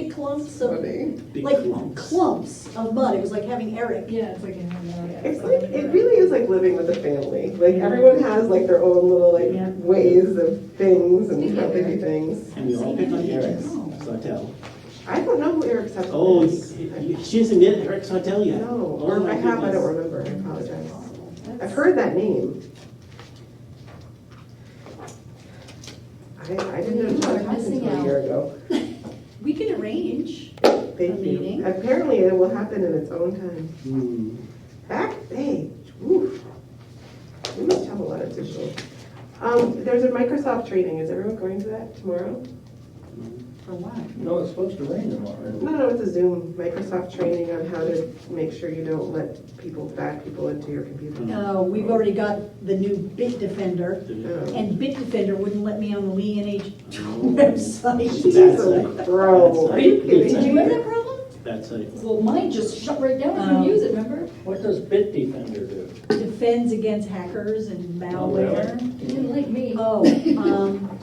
clumps of, Big like clumps. clumps of mud. It was like having Eric. Yeah, it's like in an area. It's like, it really is like living with a family. Like everyone has like their own little Yeah. like ways of things and Speaking how of they do Eric. things. And we all pick on Eric's Sawtell. I don't know who Eric's Hudson Oh, is. you- you- she hasn't knit Eric's Sawtell yet. No, Oh, or my I have, I goodness. don't remember, I apologize. I've heard that name. I, I didn't know You are what happened missing until a out. year ago. We can arrange. Thank meeting. you. Apparently it will happen in its own time. Hmm. Back, hey, woof. We must have a lot of digital. Um, there's a Microsoft training, is everyone going to that tomorrow? For what? No, it's supposed to rain tomorrow. No, no, it's a Zoom, Microsoft training on how to make sure you don't let people, bad people into your Mm. computer. No, Uh, we've already got the new Bit Defender, Oh. and Bit Defender wouldn't let me on the Lee NH Oh. website. That's Jesus, bro. That's Are you like- kidding Did me? you have that problem? That's it. Well, mine just shut right down, I Um, couldn't use it, remember? What does Bit Defender do? Defends against hackers and Oh, malware. It didn't like me. Uh, Oh, um,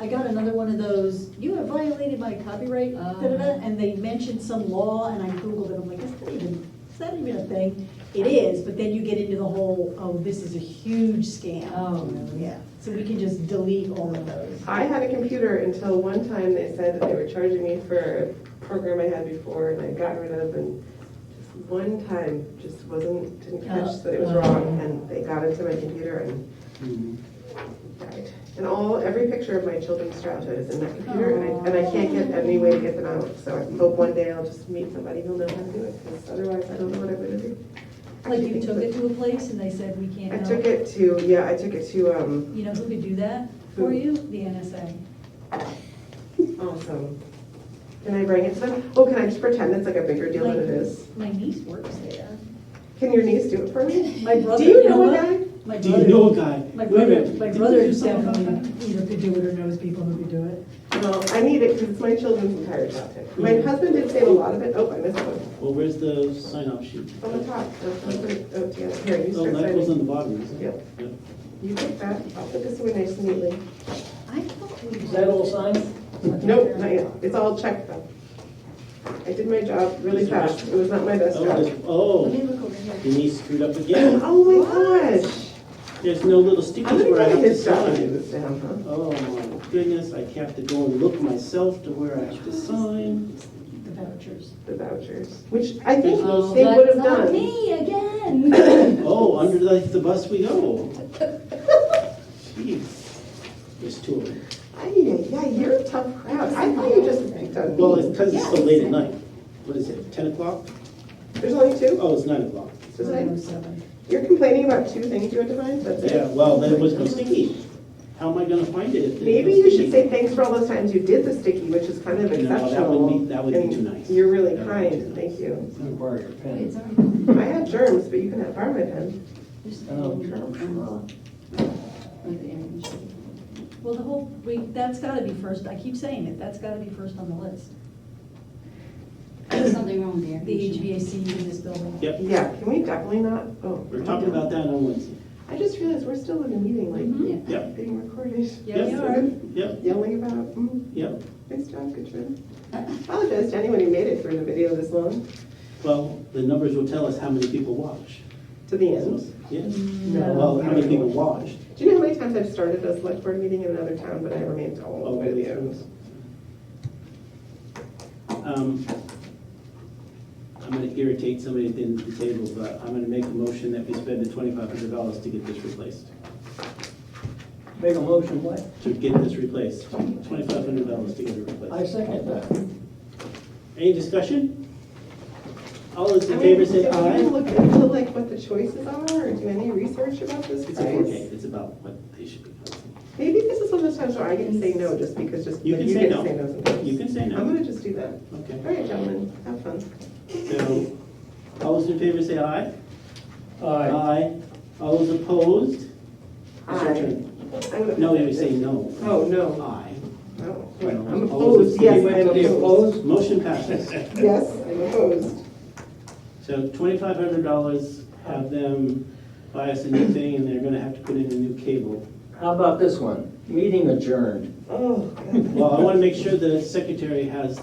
I got another one of those, you have violated my copyright, Ah. da-da-da, and they mentioned some law, and I Googled it, I'm like, is that even, is that even a thing? It is, but then you get into the whole, oh, this is a huge scam. Oh, really? Yeah, so we can just delete all of those. I had a computer until one time they said that they were charging me for a program I had before and I got rid of and just one time just wasn't, didn't catch that it was wrong and they got into my computer and Hmm. died. And all, every picture of my children's childhood is in that computer and I, and I can't get any way to get them out. So I hope one day I'll just meet somebody who'll know how to do it because otherwise I don't know what I'm gonna do. Like you took it to a place and they said, we can't I help. took it to, yeah, I took it to, um, You know who could do that for you? The NSA. awesome. Can I bring it to them? Oh, can I just pretend it's like a bigger deal than it is? My niece works there. Can your niece do it for me? My brother. Do you know a what? guy? My Do you brother- know a guy? My Wait a brother, minute. my Didn't brother you do something about definitely either could do it or knows people who could do it. No, I need it because it's my children's entire childhood. My husband did save a lot of it. Oh, I missed one. that? Well, where's the sign off sheet? On the top. So I'll put it oh, together. Here, you Oh, start that goes on signing. the bottom, isn't it? Yep. You take that. I'll put this away nice and neatly. I thought we. Is that all signed? Nope, not yet. It's all checked though. I did my job really fast. It was not my best Oh, job. the- Let me Oh, look over here. Denise screwed up again. Oh my gosh. There's no little I'm stickers gonna where I go to have to his job and do sign. this to him, huh? Oh, my goodness, I have to go and look myself to where I have to sign. The vouchers. The vouchers, which I think Oh, they would that's have not done. me again. Oh, under the, the bus we go. Jeez, there's two of them. Ay, ay, ay, you're a tough crowd. I thought you just picked on Well, it's me. because it's so late at night. What is it, ten o'clock? There's only two? Oh, it's nine o'clock. Is that- 907. You're complaining about two things you had to find, that's Yeah, it? well, then it was no sticky. How am I gonna find it if there's no Maybe you sticky? should say thanks for all those times you did the sticky, which is kind of No, that would exceptional. be- that would be and too nice. You're really That would be too kind, thank you. I'm gonna borrow your Wait, it's pen. already gone. Um, I had germs, but you can have my pen. There's the Oh, end. come on. Like the end. Well, the whole, we, that's gotta be first, I keep saying it, that's gotta be first on the list. There's something wrong with the air The conditioning. HVAC in this building. Yep, Yeah, can we definitely not? Oh. we're talking about that on Wednesday. I just realized we're still in a meeting, like, Yeah. Yep, being recorded. Mm-hmm. Yeah, we are. yep, Yelling about, mm, yep. nice job, good job. Apologize to anyone who made it through the video this long, Well, the numbers will tell us how many people watch. to the So, end. Yes, No. well, how many people watched. Do you know how many times I've started a select board meeting in another town, but I remained all the way to the end? Um, I'm gonna irritate somebody at the end of the table, but I'm gonna make a motion that we spend the twenty-five hundred dollars to get this replaced. Make a motion, what? To get this replaced, twenty-five hundred dollars to get it replaced. I second that. Any discussion? All those I in mean, favor say Did you aye. look into like what the choices are or do any research about this It's a four K, price? it's about what they should be. costing. Maybe this is one of those times where I can say no just because just, You like, can you say get no. to say no sometimes. You can say I'm no. gonna just do that. Okay, All right, gentlemen, have fun. so, all those in favor say aye. Aye. Aye. All those opposed? It's your Aye. turn. I'm gonna- No, you say no. Oh, no. Aye. No. Well, I'm opposed. opposed, yes, You I am went to opposed. Motion passes. Yes, I'm opposed. So twenty-five hundred dollars, have them buy us a new thing, and they're gonna have to put in a new cable. How about this one? Meeting adjourned. Oh, God. Well, I wanna make sure the secretary has